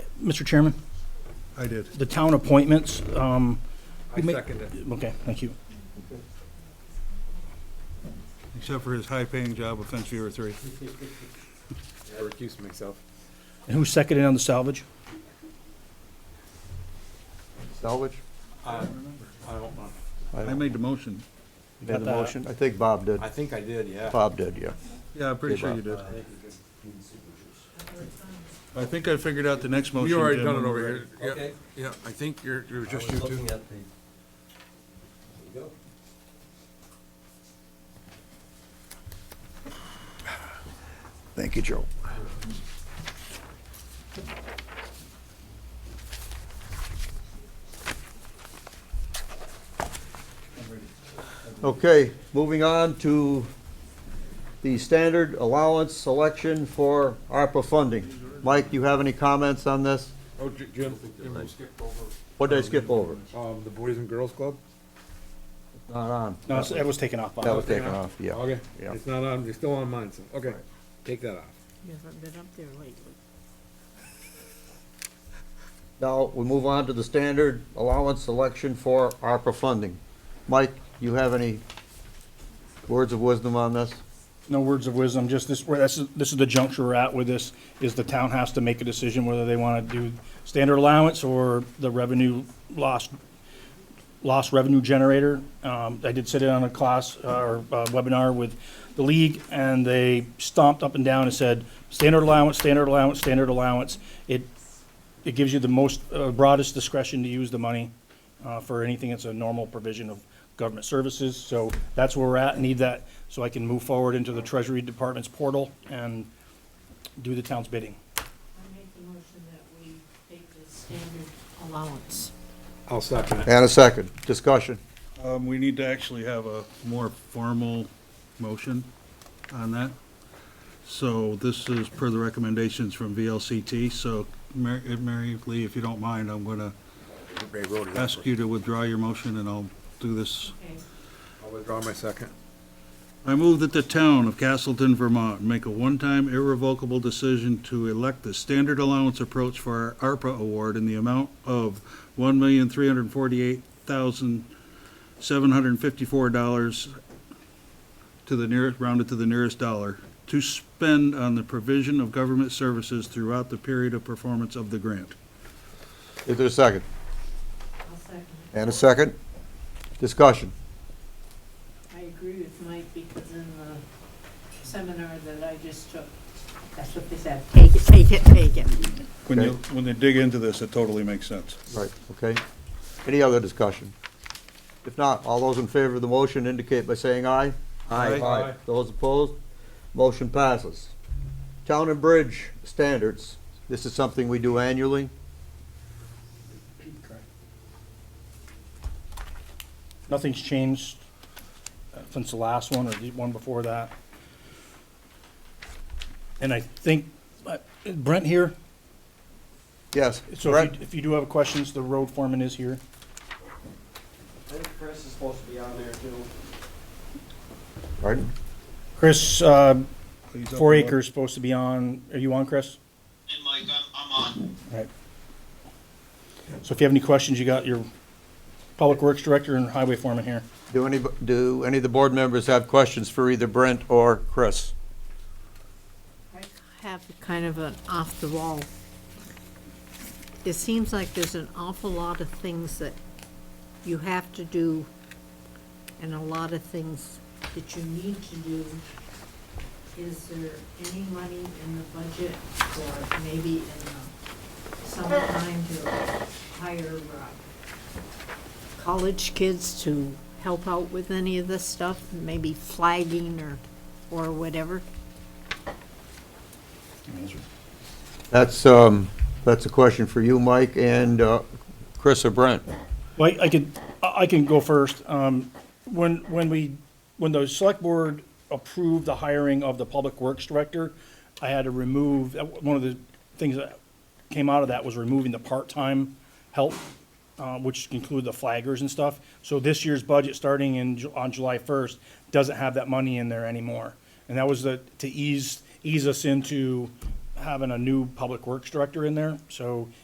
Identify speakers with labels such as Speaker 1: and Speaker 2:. Speaker 1: Mr. Chairman,
Speaker 2: I did.
Speaker 1: the town appointments, um,
Speaker 3: I
Speaker 1: Ma-
Speaker 3: second it.
Speaker 1: okay, thank you.
Speaker 2: Except for his high-paying job with fence viewer three.
Speaker 3: I recuse myself.
Speaker 1: And who seconded on the salvage?
Speaker 4: Salvage?
Speaker 3: I don't know.
Speaker 4: I
Speaker 2: I
Speaker 4: don't-
Speaker 2: made the motion.
Speaker 4: made the
Speaker 1: Got that.
Speaker 4: motion. I think Bob did.
Speaker 3: I think I did, yeah.
Speaker 4: Bob did, yeah.
Speaker 2: Yeah, I'm pretty
Speaker 4: Okay,
Speaker 2: sure you
Speaker 4: Bob.
Speaker 2: did. I think I figured out the next motion.
Speaker 5: You already
Speaker 2: Jim,
Speaker 5: done it
Speaker 2: when
Speaker 5: over
Speaker 2: we-
Speaker 5: here. Yeah,
Speaker 3: Okay.
Speaker 5: yeah, I think you're, you're just you two.
Speaker 4: Thank you, Joe. Okay, moving on to the standard allowance selection for ARPA funding. Mike, do you have any comments on this?
Speaker 5: Oh, J- Jim, you skipped over,
Speaker 4: What did I skip over?
Speaker 5: um, the Boys and Girls Club?
Speaker 4: Not on.
Speaker 1: No, it's- that was taken off. Bob.
Speaker 4: That was taken off, yeah.
Speaker 5: Okay,
Speaker 4: Yeah.
Speaker 5: it's not on, it's still on mine, so, okay, take that off.
Speaker 6: You haven't been up there lately.
Speaker 4: Now, we move on to the standard allowance selection for ARPA funding. Mike, you have any words of wisdom on this?
Speaker 1: No words of wisdom, just this, where this is, this is the juncture we're at with this, is the town has to make a decision whether they wanna do standard allowance or the revenue lost, lost revenue generator. Um, I did sit in on a class, uh, or uh, webinar with the league, and they stomped up and down and said, standard allowance, standard allowance, standard allowance. It, it gives you the most, uh, broadest discretion to use the money, uh, for anything that's a normal provision of government services. So that's where we're at, need that, so I can move forward into the Treasury Department's portal and do the town's bidding.
Speaker 6: I make the motion that we take the standard allowance.
Speaker 5: I'll second it.
Speaker 4: And a second, discussion.
Speaker 2: Um, we need to actually have a more formal motion on that. So this is per the recommendations from VLCT, so Mary, uh, Mary Lee, if you don't mind, I'm gonna
Speaker 5: Ray wrote it.
Speaker 2: ask you to withdraw your motion and I'll do this.
Speaker 6: Okay,
Speaker 5: I'll withdraw my second.
Speaker 2: I move that the town of Castleton, Vermont, make a one-time irrevocable decision to elect the standard allowance approach for our ARPA award in the amount of one million, three hundred and forty-eight thousand, seven hundred and fifty-four dollars to the nearest, rounded to the nearest dollar, to spend on the provision of government services throughout the period of performance of the grant.
Speaker 4: Is there a second?
Speaker 6: I'll second it.
Speaker 4: And a second, discussion.
Speaker 6: I agree with Mike because in the seminar that I just took, that's what they said. Take it, take it, take it.
Speaker 2: When you,
Speaker 4: Okay.
Speaker 2: when they dig into this, it totally makes sense.
Speaker 4: Right, okay. Any other discussion? If not, all those in favor of the motion indicate by saying aye.
Speaker 2: Aye. Aye.
Speaker 4: Those opposed, motion passes. Town and Bridge Standards, this is something we do annually.
Speaker 1: Nothing's changed uh, since the last one or the one before that. And I think, uh, Brent here,
Speaker 4: Yes,
Speaker 1: so if
Speaker 4: Brett?
Speaker 1: you- if you do have questions, the road foreman is here.
Speaker 7: I think Chris is supposed to be on there too.
Speaker 4: Pardon?
Speaker 1: Chris, uh,
Speaker 2: Please up
Speaker 1: Four
Speaker 2: the vote.
Speaker 1: Acres supposed to be on, are you on, Chris?
Speaker 8: And Mike, I'm, I'm on.
Speaker 1: Right. So if you have any questions, you got your Public Works Director and Highway Foreman here.
Speaker 4: Do any, do any of the board members have questions for either Brent or Chris?
Speaker 6: I have kind of an off-the-wall. It seems like there's an awful lot of things that you have to do and a lot of things that you need to do. Is there any money in the budget or maybe in the summertime to hire uh, college kids to help out with any of this stuff? Maybe flagging or, or whatever?
Speaker 4: That's, um, that's a question for you, Mike, and, uh, Chris or Brent.
Speaker 1: Well, I I could, I I can go first. Um, When, when we, when the select board approved the hiring of the public works director, I had to remove, uh, one of the things that came out of that was removing the part-time help, uh, which include the flaggers and stuff. So this year's budget, starting in, Ju- on July 1st, doesn't have that money in there anymore. And that was the, to ease, ease us into having a new public works director in there. So